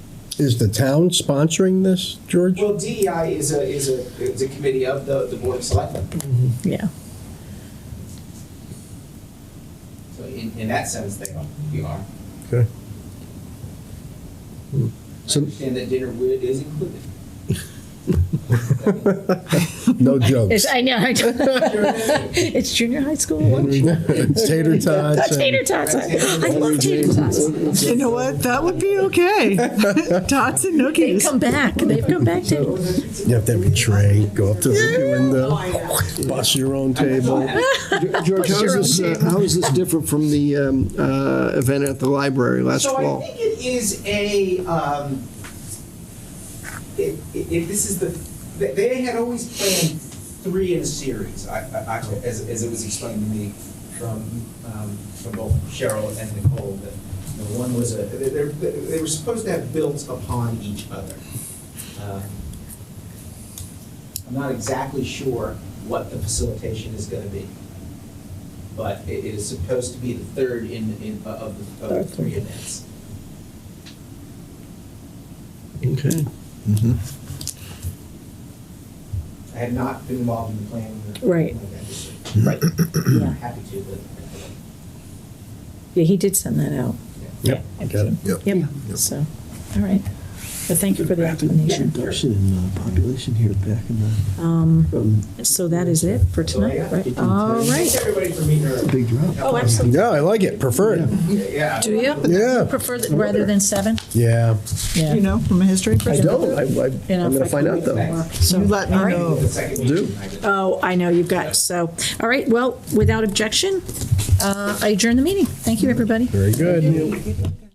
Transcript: is the town sponsoring this, George? Well, DEI is a, is a, is a committee of the, the Board of Selectmen. Yeah. So in, in that sense, they are, we are. Okay. I understand that dinner wi- is included. No jokes. It's, I know. I don't- it's junior high school lunch. It's tater tots. and- Tater tots. I I love tater tots. You know what? That would be okay. Tots and They've nookies. come back. They've come back to. You have to have your tray, go up to Oh, the window, bust your own table. George, how Sure, is this, uh, how is this different from the um, uh, event at the library last So I fall? think it is a, um, if, if this is the, they- they had always planned three in a series, I, I, I- as, as it was explained to me from, um, from both Cheryl and Nicole, that you know, one was a, they, they, they were supposed to have built upon each other. Um, I'm not exactly sure what the facilitation is gonna be, but it it is supposed to be the third in, in, of the, of the three events. Okay. I had not been involved in the planning. or- Right. Right. Yeah. Happy to, but. Yeah, he did send that out. Yep, Yeah, got it. Yep. So, all right. But thank you for the explanation. Reduction in population here back in the Um, so that is it for tonight, right? All Thanks right. everybody for meeting her. big drop. Oh, absolutely. Yeah, I like it, prefer it. Yeah. Do you Yeah, prefer that rather than seven? yeah. Yeah. You know, from a history I perspective. don't, I, I- You know, I'm gonna if I find could out though. So, You let me all right. know. The second Do. meeting, I did. Oh, I know, you've got, so, all right, well, without objection, uh, I adjourn the meeting. Thank you, everybody. Very good.